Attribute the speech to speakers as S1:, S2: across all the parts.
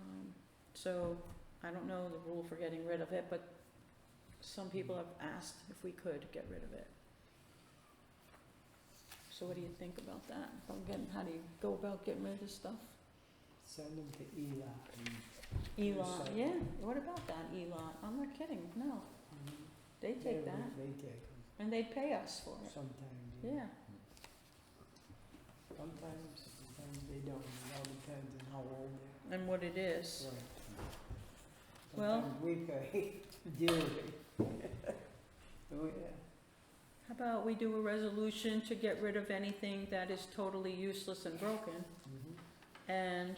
S1: Um, So I don't know the rule for getting rid of it, but some people have asked if we could get rid of it. So what do you think about that? About getting, how do you go about getting rid of stuff?
S2: Send them to ELAC and.
S1: E-lot,
S2: Recycle.
S1: yeah, what about that E-lot? I'm not kidding, no,
S2: Mhm.
S1: they
S2: They
S1: take
S2: would-
S1: that
S2: They take them
S1: and they pay us for it,
S2: sometimes.
S1: yeah.
S2: Sometimes, sometimes they don't. It all depends on how old they
S1: And what it is,
S2: are. Right.
S1: Well-
S2: Sometimes we pay dearly. Oh, yeah.
S1: how about we do a resolution to get rid of anything that is totally useless and broken?
S3: Mm-hmm.
S2: Mhm.
S1: And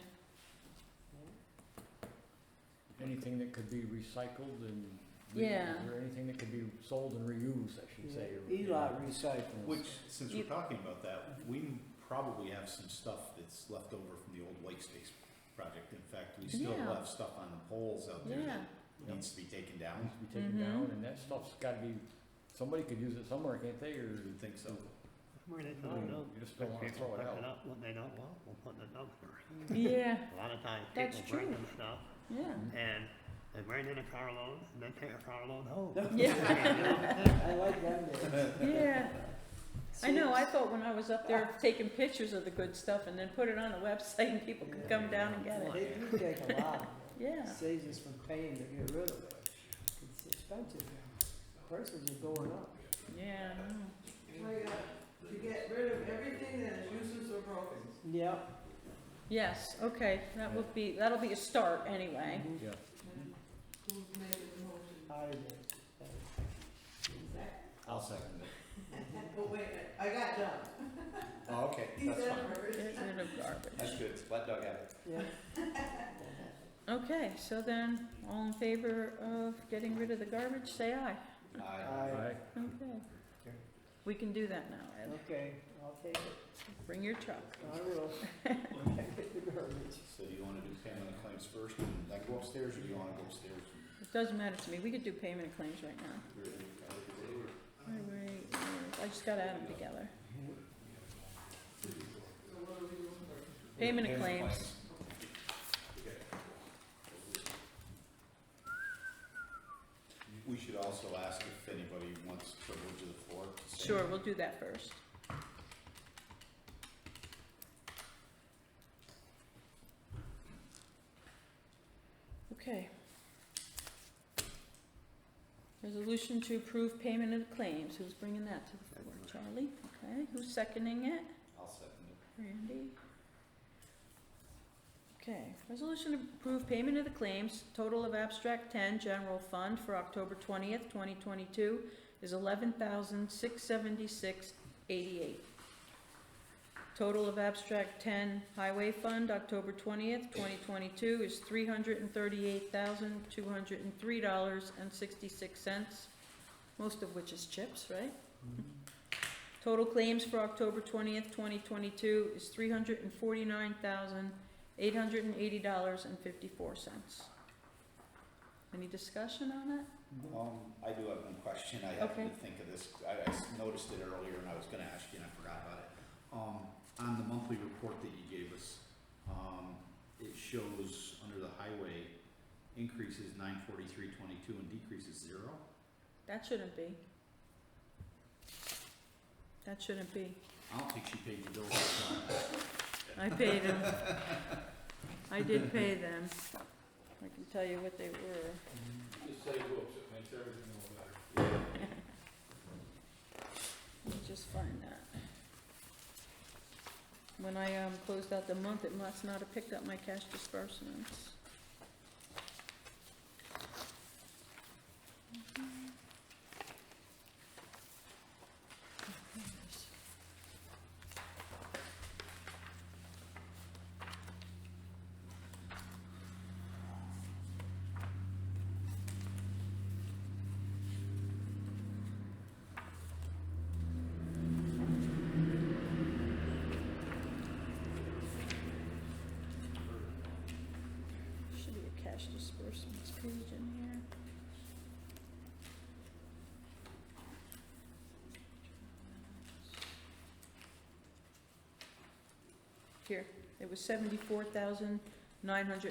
S2: Yeah.
S3: Anything that could be recycled and. re-
S1: Yeah.
S3: Or anything that could be sold and reused, I should say. or, you know.
S2: ELAC recycles.
S4: Which, since
S1: You-
S4: we're talking about that, we m- probably have some stuff that's left over from the old white space project. In fact, we still
S1: Yeah.
S4: have stuff on the poles out there
S1: Oh, yeah,
S4: that needs to be taken down.
S3: Needs to be taken
S1: Mhm.
S3: down, and that stuff's gotta be, somebody could use it somewhere, can't they, or?
S4: I would think so.
S5: Where they
S3: I
S5: throw
S3: mean,
S5: it up.
S3: You just don't wanna
S5: People
S3: throw it
S5: pick
S3: out.
S5: it up when they don't want, will put it in the dumpster.
S2: Mhm.
S1: yeah,
S5: A lot of times
S1: That's
S5: people bring
S1: true.
S5: them stuff
S1: yeah.
S5: and they bring in a carload and they take a carload home.
S1: Yeah.
S2: I like them days.
S1: Yeah, I know, I thought when I was up there taking pictures of the good stuff and then put it on the website and people could come down and get it.
S2: They do take a lot.
S1: Yeah,
S2: Saves us from paying to get rid of it. It's expensive now. Prices are going up.
S1: yeah, I know.
S2: to get rid of everything that is useless or broken. Yep.
S1: Yes, okay, that would be, that'll be a start anyway.
S2: Mhm.
S3: Yeah.
S2: I did.
S4: I'll second it.
S2: But wait, I got done.
S4: Oh, okay, that's fine.
S1: Get rid of garbage.
S4: That's good. Let Doug have it.
S2: Yeah.
S1: Okay, so then, all in favor of getting rid of the garbage, say aye.
S4: Aye.
S2: I,
S3: Aye.
S1: Okay. We can do that now, Ed.
S2: okay, I'll take it.
S1: Bring your truck.
S2: I will. I get the garbage.
S4: So do you wanna do payment of claims first and then go upstairs, or do you wanna go upstairs? and-
S1: It doesn't matter to me, we could do payment of claims right now. Highway, uh, I just gotta add them together. Payment of claims.
S4: We should also ask if anybody wants privilege of the floor. to say-
S1: Sure, we'll do that first. Okay. Resolution to approve payment of claims. Who's bringing that to the floor? Charlie? Okay. Who's seconding it?
S4: I'll second it.
S1: Randy? Okay, resolution to approve payment of the claims, total of abstract ten, general fund for October twentieth, twenty twenty-two is eleven thousand, six seventy-six, eighty-eight. Total of abstract ten, highway fund, October twentieth, twenty twenty-two is three hundred and thirty-eight thousand, two hundred and three dollars and sixty-six cents, most of which is chips, right? Total claims for October twentieth, twenty twenty-two is three hundred and forty-nine thousand, eight hundred and eighty dollars and fifty-four cents. Any discussion on it?
S4: Um, I do have one question, I happened
S1: Okay.
S4: to think of this, I, I s- noticed it earlier and I was gonna ask you and I forgot about it. Um, on the monthly report that you gave us, um, it shows under the highway, increases nine forty-three twenty-two and decreases zero.
S1: That shouldn't be. That shouldn't be.
S4: I don't think she paid the bill. last time.
S1: I paid them. I did pay them. I can tell you what they were.
S3: Just say whoops, it makes everything a little better.
S1: Let me just find that. When I, um, closed out the month, it must not have picked up my cash disbursements. Mhm. Oh, there it is. Should be a cash disbursements page in here. Here, it was seventy-four thousand nine hundred